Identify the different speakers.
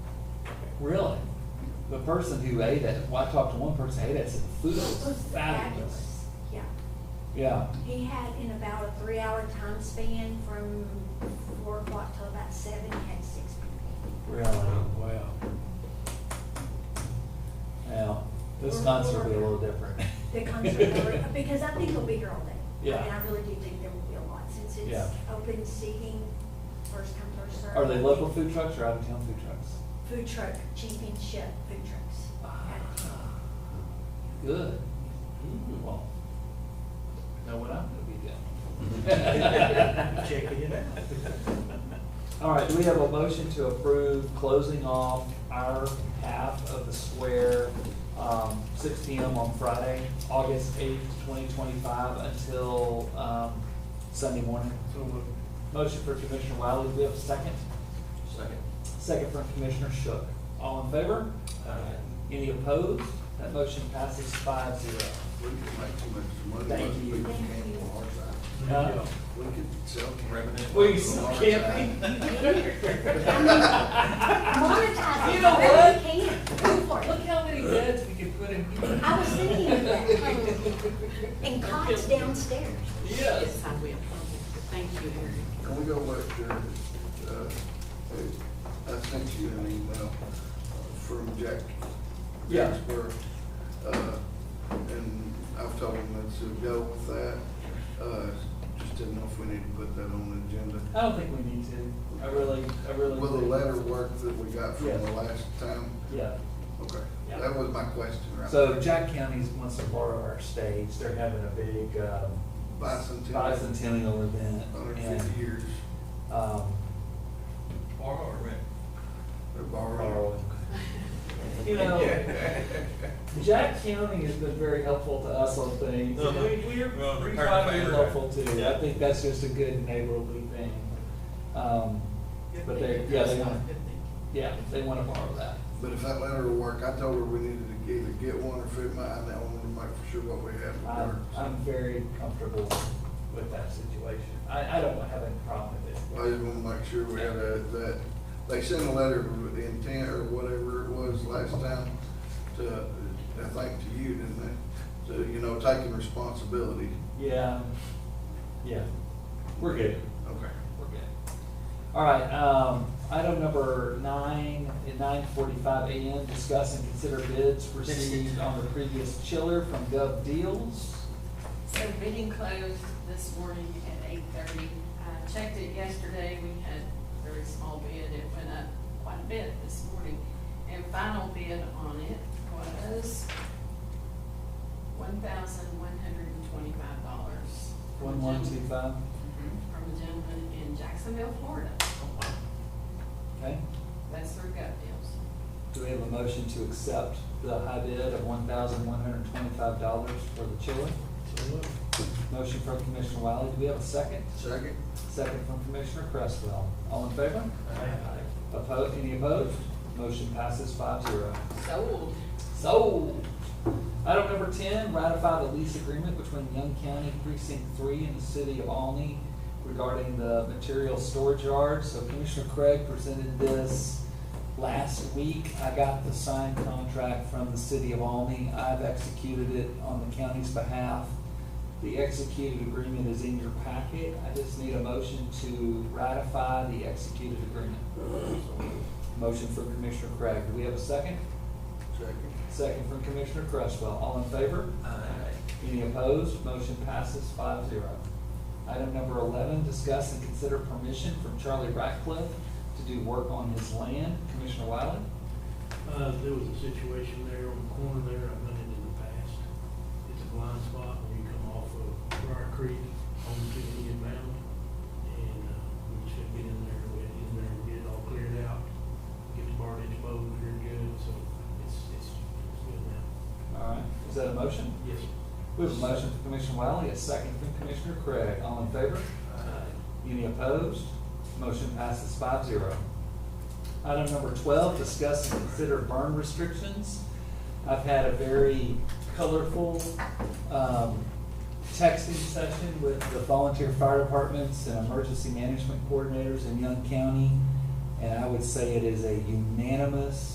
Speaker 1: Really? The person who ate it, well, I talked to one person who ate it, said the food was fabulous.
Speaker 2: Yeah,
Speaker 1: Yeah,
Speaker 2: he had in about a three-hour time span from four o'clock till about seven, he had six people.
Speaker 1: really,
Speaker 3: Oh,
Speaker 1: wow. Now, this
Speaker 2: We're-
Speaker 1: concert will be a
Speaker 2: we're-
Speaker 1: little different.
Speaker 2: The concert, because I think he'll be here all day.
Speaker 1: Yeah.
Speaker 2: And I really do think there will be a lot, since
Speaker 1: Yeah.
Speaker 2: it's open seating, first come, first served.
Speaker 1: Are they local food trucks or out of town food trucks?
Speaker 2: Food truck, championship food trucks. out
Speaker 1: Ah.
Speaker 2: of town.
Speaker 1: Good. Ooh, well, know what I'm gonna be doing.
Speaker 3: Checking it out.
Speaker 1: All right, do we have a motion to approve closing off our half of the square, um, six P M on Friday, August eighth, twenty twenty-five, until, um, Sunday morning?
Speaker 3: So moved.
Speaker 1: Motion for Commissioner Wiley, do we have a second?
Speaker 3: Second.
Speaker 1: Second from Commissioner Shook. All in favor? Any opposed? That motion passes five zero.
Speaker 4: We could make too much money.
Speaker 1: Thank
Speaker 4: but
Speaker 1: you.
Speaker 4: We could camp on our side.
Speaker 1: Uh,
Speaker 4: We could sell revenue.
Speaker 1: We
Speaker 4: on our
Speaker 1: camping?
Speaker 4: side.
Speaker 2: Monetize it.
Speaker 1: You know
Speaker 2: however
Speaker 1: what?
Speaker 2: you can. Go for it.
Speaker 1: Look how many beds we could put in.
Speaker 2: I was thinking of that. And cots downstairs.
Speaker 1: Yes.
Speaker 5: I will. Thank you, Eric.
Speaker 4: Can we go back there? uh, I sent you an email from Jack.
Speaker 1: Yeah.
Speaker 4: Jacksburg, uh, and I've told him let's go with that. Uh, Just didn't know if we need to put that on the agenda.
Speaker 1: I don't think we need to. I really, I really.
Speaker 4: Will the
Speaker 1: do.
Speaker 4: letter work that we got from
Speaker 1: Yeah.
Speaker 4: the last time?
Speaker 1: Yeah.
Speaker 4: Okay,
Speaker 1: Yeah.
Speaker 4: that was my question, right?
Speaker 1: So Jack County wants to borrow our stage. They're having a big, um,
Speaker 4: Bicentennial.
Speaker 1: bicentennial event.
Speaker 4: Hundred
Speaker 1: and,
Speaker 4: fifty years,
Speaker 1: Um,
Speaker 3: Borrow or rent?
Speaker 4: they're
Speaker 1: borrowing.
Speaker 4: borrowing.
Speaker 1: You know, Jack County has been very helpful to us on things.
Speaker 3: No, we- we are
Speaker 1: Uh-huh. Well,
Speaker 3: pretty
Speaker 1: they're
Speaker 3: proud of
Speaker 1: very
Speaker 3: our-
Speaker 1: helpful too. I think that's just a good neighborly thing. Um, But they, yeah, they want, yeah, they want to borrow that.
Speaker 4: But if that letter will work, I told her we needed to either get one or fit my, I now wanted to make for sure what we had would work.
Speaker 1: I'm, I'm very comfortable with that situation. I, I don't have any problem with
Speaker 4: I
Speaker 1: it.
Speaker 4: just wanna make sure we had a, that, they sent a letter with the intent or whatever it was last time to, I think to you, didn't they? To, you know, taking responsibility.
Speaker 1: Yeah, um, yeah, we're good,
Speaker 4: Okay.
Speaker 1: we're good. All right, um, item number nine, at nine forty-five AM, discuss and consider bids received on the previous chiller from Gov Deals.
Speaker 5: So bidding closed this morning at eight thirty. I checked it yesterday, we had a very small bid, it went up quite a bit this morning. And final bid on it was one thousand one hundred and twenty-five dollars.
Speaker 1: One one two five,
Speaker 5: From a gentleman in Jacksonville, Florida.
Speaker 1: okay?
Speaker 5: That's their gut deals.
Speaker 1: Do we have a motion to accept the high bid of one thousand one hundred twenty-five dollars for the chiller?
Speaker 3: So moved.
Speaker 1: Motion from Commissioner Wiley, do we have a second?
Speaker 4: Second?
Speaker 1: Second from Commissioner Cresswell. All in favor? Aye. Opposed, any opposed? Motion passes five zero.
Speaker 5: Sold.
Speaker 1: Sold. Item number ten, ratify the lease agreement between Young County Precinct Three and the City of Alny regarding the material storage yard. So Commissioner Craig presented this last week. I got the signed contract from the City of Alny. I've executed it on the county's behalf. The executed agreement is in your packet. I just need a motion to ratify the executed agreement. Motion for Commissioner Craig. Do we have a second?
Speaker 4: Second.
Speaker 1: Second from Commissioner Cresswell. All in favor? Any opposed? Motion passes five zero. Item number eleven, discuss and consider permission from Charlie Ratcliffe to do work on his land. Commissioner Wiley?
Speaker 6: Uh, there was a situation there on the corner there, I've done it in the past. It's a blind spot when you come off of Briar Creek onto Indian Mound. And, uh, we should get in there, we had in there and get it all cleared out, get the barnage mowed, cleared good, so it's, it's, it's good now.
Speaker 1: All right. Is that a motion?
Speaker 6: Yes.
Speaker 1: We have a motion from Commissioner Wiley, a second from Commissioner Craig. All in favor?
Speaker 6: Uh,
Speaker 1: Any opposed? Motion passes five zero. Item number twelve, discuss and consider burn restrictions. I've had a very colorful, um, texting session with the volunteer fire departments and emergency management coordinators in Young County. And I would say it is a unanimous